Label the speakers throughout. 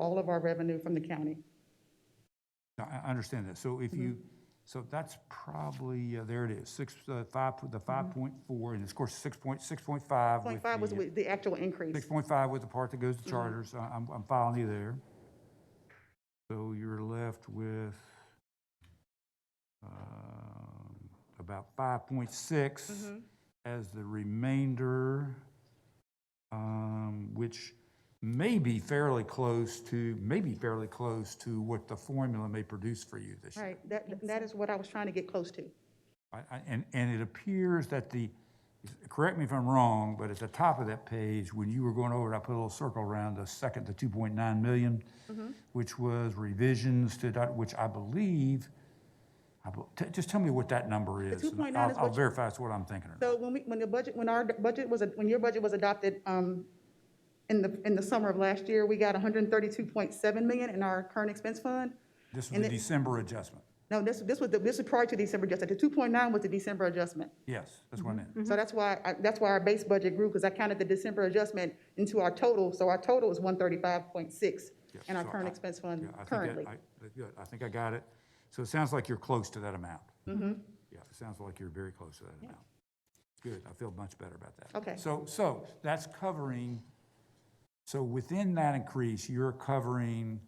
Speaker 1: all of our revenue from the county.
Speaker 2: No, I I understand that. So if
Speaker 1: Mm-hmm.
Speaker 2: you, so that's probably, uh, there it is, six, uh, five, the five point four, and of course, six point, six point five.
Speaker 1: Point Mm-hmm. five was with the actual increase.
Speaker 2: Six point five with the part that goes to charters. I- I'm, I'm following you there. So you're left with, um, about five point six as the remainder, um, which may be fairly close to, may be fairly close to what the formula may produce for you this year.
Speaker 1: Right, that, that is what I was trying to get close to.
Speaker 2: I- I- And, and it appears that the, correct me if I'm wrong, but at the top of that page, when you were going over it, I put a little circle around the second, the 2.9 million,
Speaker 1: Mm-hmm.
Speaker 2: which was revisions to, that, which I believe, I bel- t- just tell me what that number is. and
Speaker 1: 2.9
Speaker 2: I'll-
Speaker 1: is
Speaker 2: I'll
Speaker 1: what-
Speaker 2: verify it's what I'm thinking. or not.
Speaker 1: So when we, when the budget, when our budget was, when your budget was adopted, um, in the, in the summer of last year, we got hundred and thirty-two point seven million in our current expense fund.
Speaker 2: This was the December adjustment.
Speaker 1: No, this, this was, the this was prior to December adjustment. The two point nine was the December adjustment.
Speaker 2: Yes, that's what I meant.
Speaker 1: So that's why, I- that's why our base budget grew, because I counted the December adjustment into our total. So our total is one thirty-five point six
Speaker 2: Yeah,
Speaker 1: in our
Speaker 2: so
Speaker 1: current
Speaker 2: I-
Speaker 1: expense
Speaker 2: Yeah,
Speaker 1: fund
Speaker 2: I think that-
Speaker 1: currently.
Speaker 2: I- that's good. I think I got it. So it sounds like you're close to that amount.
Speaker 1: Mm-hmm.
Speaker 2: Yeah, it sounds like you're very close to that amount. Good, I feel much better about that.
Speaker 1: Okay.
Speaker 2: So, so that's covering, so within that increase, you're covering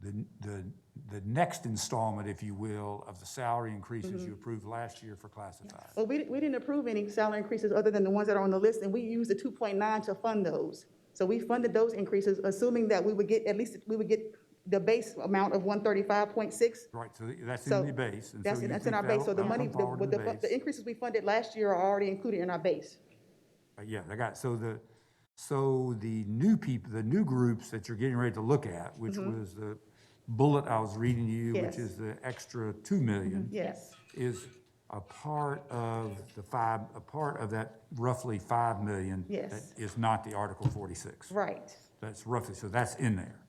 Speaker 2: the, the, the next installment, if you will, of the salary increases you
Speaker 1: Mm-hmm.
Speaker 2: approved last year for classified.
Speaker 1: Well, we, di- we didn't approve any salary increases other than the ones that are on the list, and we used the two point nine to fund those. So we funded those increases, assuming that we would get, at least, we would get the base amount of one thirty-five point six.
Speaker 2: Right, so that's
Speaker 1: So
Speaker 2: in the base. and so
Speaker 1: That's,
Speaker 2: you
Speaker 1: that's in
Speaker 2: think
Speaker 1: our base,
Speaker 2: that'll-
Speaker 1: so the
Speaker 2: that'll
Speaker 1: money,
Speaker 2: come
Speaker 1: the,
Speaker 2: forward in
Speaker 1: with the,
Speaker 2: the
Speaker 1: fu-
Speaker 2: base.
Speaker 1: the increases we funded last year are already included in our base.
Speaker 2: Uh, Yeah, I got, it. so the, so the new people, the new groups that you're getting ready to look at, which was the bullet I was reading you,
Speaker 1: Mm-hmm. Yes. Mm-hmm.
Speaker 2: which is the extra two million,
Speaker 1: Yes,
Speaker 2: is a part of the five, a part of that roughly five million.
Speaker 1: Yes.
Speaker 2: That is not the Article forty-six.
Speaker 1: right,
Speaker 2: That's roughly, so that's in there.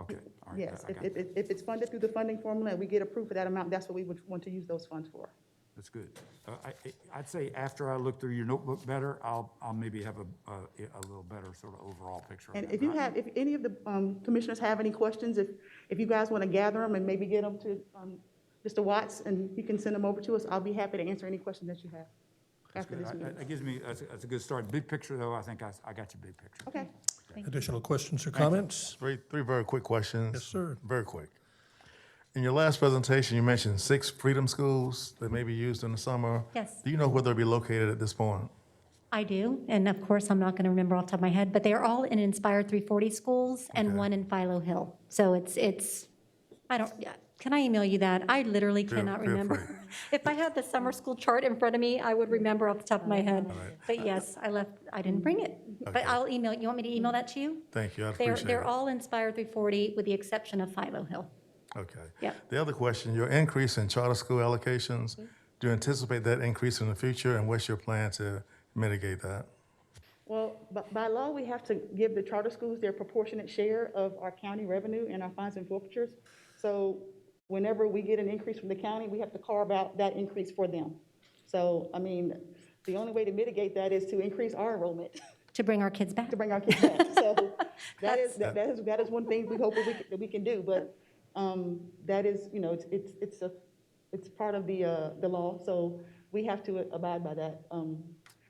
Speaker 2: Okay, all right.
Speaker 1: yes.
Speaker 2: I- I
Speaker 1: If,
Speaker 2: got
Speaker 1: if,
Speaker 2: that.
Speaker 1: if- if it's funded through the funding formula and we get approved for that amount, that's what we would want to use those funds for.
Speaker 2: That's good. Uh, I, I- I'd say after I look through your notebook better, I'll, I'll maybe have a, a, a little better sort of overall picture. of
Speaker 1: And
Speaker 2: that,
Speaker 1: if you
Speaker 2: but I-
Speaker 1: have, if any of the um, commissioners have any questions, if, if you guys want to gather them and maybe get them to um, Mr. Watts, and he can send them over to us, I'll be happy to answer any questions that you have
Speaker 2: That's
Speaker 1: after
Speaker 2: good.
Speaker 1: this
Speaker 2: That-
Speaker 1: meeting.
Speaker 2: That gives me, that's, a- that's a good start. Big picture, though, I think I, s- I got your big picture.
Speaker 1: Okay,
Speaker 3: Additional questions or comments?
Speaker 4: Three, three very quick questions.
Speaker 3: Yes, sir.
Speaker 4: Very quick. In your last presentation, you mentioned six freedom schools that may be used in the summer.
Speaker 5: Yes.
Speaker 4: Do you know where they'll be located at this point?
Speaker 5: I do, and of course, I'm not going to remember off the top of my head, but they are all in Inspired 340 schools and one in Philo Hill. So it's, it's, I don't, yeah, can I email you that? I literally cannot
Speaker 4: feel free.
Speaker 5: remember. If I had the summer school chart in front of me, I would remember off the top of my head. But yes, I left, I didn't bring it. But I'll email, you want me to email that to you?
Speaker 4: Thank you, I
Speaker 5: They're,
Speaker 4: appreciate
Speaker 5: they're
Speaker 4: it.
Speaker 5: all Inspired 340 with the exception of Philo Hill.
Speaker 4: Okay.
Speaker 5: Yep. Mm-hmm.
Speaker 4: The other question, your increase in charter school allocations, do you anticipate that increase in the future and what's your plan to mitigate that?
Speaker 1: well, bu- by law, we have to give the charter schools their proportionate share of our county revenue and our fines and forfeitures. So whenever we get an increase from the county, we have to carve out that increase for them. So, I mean, the only way to mitigate that is to increase our enrollment.
Speaker 5: To bring our kids back.
Speaker 1: to bring our kids back. So that is, that that is, that is one thing we hope that we, can- that we can do, but um, that is, you know, it's, it's, it's a, it's part of the, uh, the law, so we have to abide by that. Um,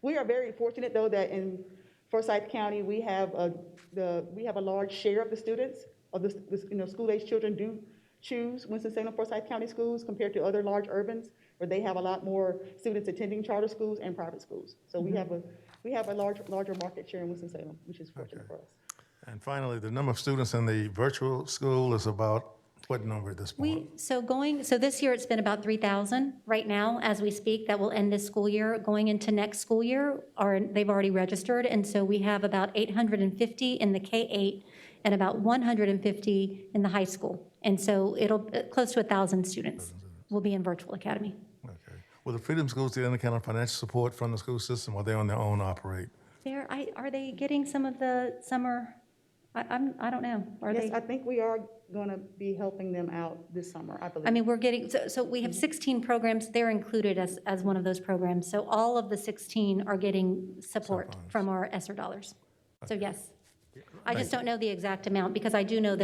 Speaker 1: We are very fortunate, though, that in Forsyth County, we have a, the, we have a large share of the students, of the, the, you know, school-aged children do choose Winston-Salem Forsyth County schools compared to other large urbans, where they have a lot more students attending charter schools and private schools. So we have a, we have a large, larger market share in Winston-Salem, which is fortunate for us.
Speaker 4: And finally, the number of students in the virtual school is about what number at this point?
Speaker 5: We, so going, so this year it's been about 3,000 right now as we speak. That will end this school year. Going into next school year, are, they've already registered. And so we have about 850 in the K-8 and about 150 in the high school. And so it'll, uh, close to 1,000 students will be in virtual academy.
Speaker 4: Okay. Will the freedom schools get any kind of financial support from the school system or they on their own operate?
Speaker 5: There, I, are they getting some of the summer, I, I'm, I don't know. Are they?
Speaker 1: Yes, I think we are gonna be helping them out this summer, I believe.
Speaker 5: I mean, we're getting, so, so we have 16 programs, they're included as, as one of those programs. So all of the 16 are getting support from our ESSER dollars. So yes. I just don't know the exact amount because I do know that